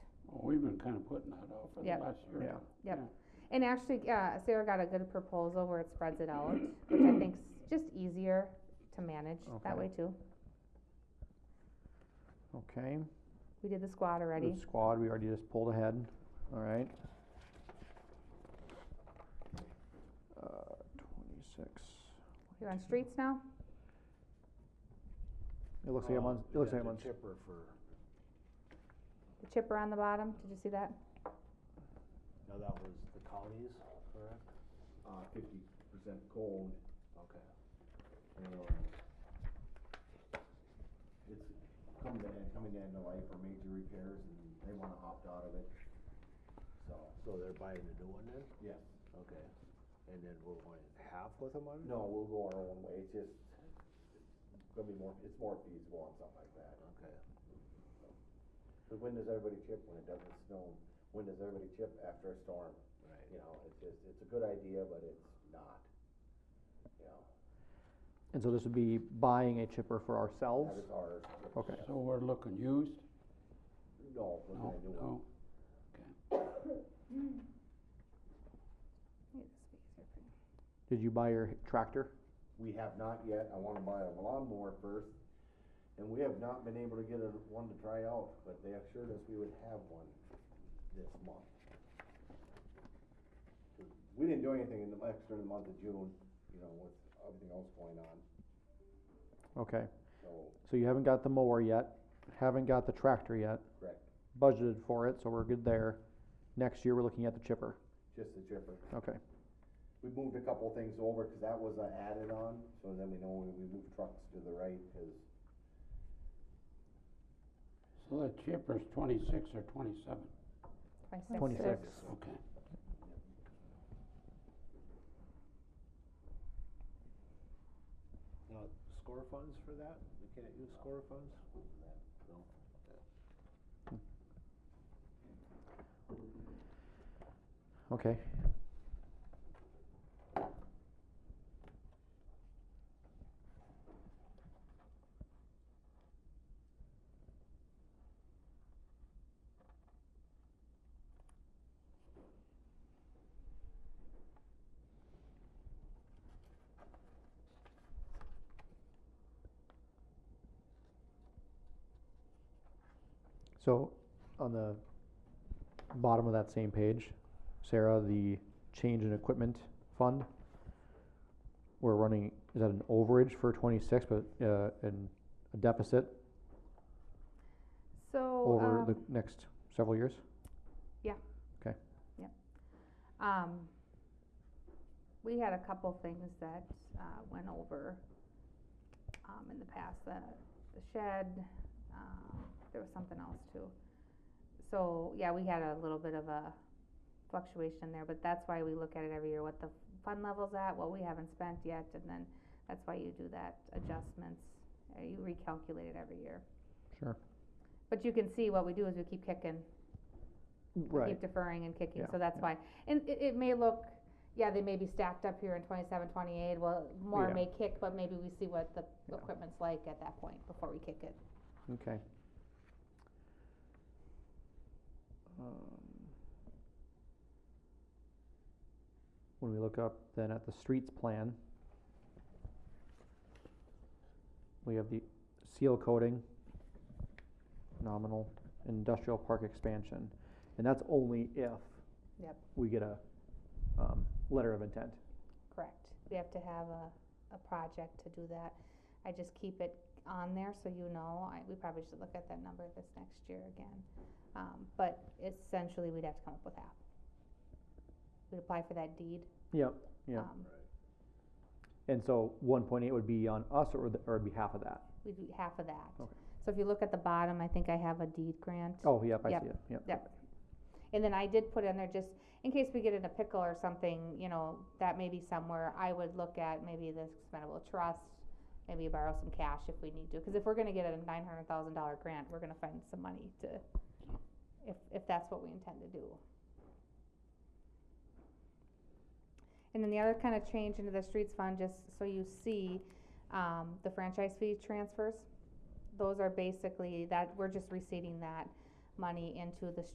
we've been kind of putting that off for the Yep. last year. Yeah. Yep. And actually, uh, Sarah got a good proposal where it spreads it out, which I think's just easier to manage that Okay. way too. okay. We did the squad already. The squad, we already just pulled ahead, all right. Uh, twenty-six, You're on streets now? it looks like I'm Uh, on, it looks yeah, like I'm the on, s- Chipper for, The chipper on the bottom, did you see that? no, that was the counties, correct? uh, fifty percent gold, Okay. and um, it's coming to, end- coming to end of life for major repairs, and they wanna opt out of it, so, So they're buying a new one then? yeah. Okay. And then we're going half with them on it? No, we'll go our own way, it's just, it's gonna be more, it's more feasible on something like that. Okay. But when does everybody chip when it doesn't snow? When does everybody chip after a storm? Right. You know, it's just, it's a good idea, but it's not, you know, and so this would be buying a chipper for ourselves? that is ours. Okay, So we're looking used? No, we're No, gonna do it. no. Yeah, this would be easier for you. did you buy your tractor? We have not yet, I wanna buy a lawnmower first, and we have not been able to get a, one to try out, but they assured us we would have one this month. 'Cause We didn't do anything in the, extra in the month of June, you know, with everything else going on, Okay, so, so you haven't got the mower yet, haven't got the tractor yet, correct, budgeted for it, so we're good there. Next year, we're looking at the chipper, just the chipper. okay, We moved a couple things over, cause that was an added on, so then we know when we move trucks to the right, cause So that chipper's twenty-six or twenty-seven? twenty-six. Okay. Now, score funds for that? We can't use score funds? No. Okay. So, on the bottom of that same page, Sarah, the change in equipment fund. We're running, is that an overage for twenty-six, but, uh, and a deficit So, over the um, next several years? um, we had a couple things that, uh, went over, um, in the past, the, the shed, um, there was something else too. So, yeah, we had a little bit of a fluctuation there, but that's why we look at it every year, what the fund level's at, what we haven't spent yet, and then that's why you do that adjustments, uh, you recalculate it every year. Sure. But you can see what we do is we keep kicking we Right, keep deferring and kicking, Yeah, so that's why. And it, it may look, yeah, they may be stacked up here in twenty-seven, twenty-eight, well, more Yeah. may kick, but maybe we see what the Yeah. equipment's like at that point before we kick it. okay. Um, When we look up then at the streets plan, we have the seal coating, nominal, industrial park expansion, and that's only if Yep. we get a, um, letter of intent. Correct. We have to have a, a project to do that. I just keep it on there so you know, I, we probably should look at that number this next year again. Um, but essentially, we'd have to come up with half. We'd apply for that deed. Yep, yeah. um, And so one point eight would be on us or, the- or it'd be half of that? We'd do half of that. Okay. So if you look at the bottom, I think I have a deed grant. Oh, yep, I Yep. see it, yep. Yep. And then I did put in there just, in case we get in a pickle or something, you know, that may be somewhere, I would look at maybe this expendable trust, maybe borrow some cash if we need to, cause if we're gonna get a nine hundred thousand dollar grant, we're gonna find some money to, if, if that's what we intend to do. And then the other kind of change into the streets fund, just so you see, um, the franchise fee transfers, those are basically, that, we're just receiving that money into the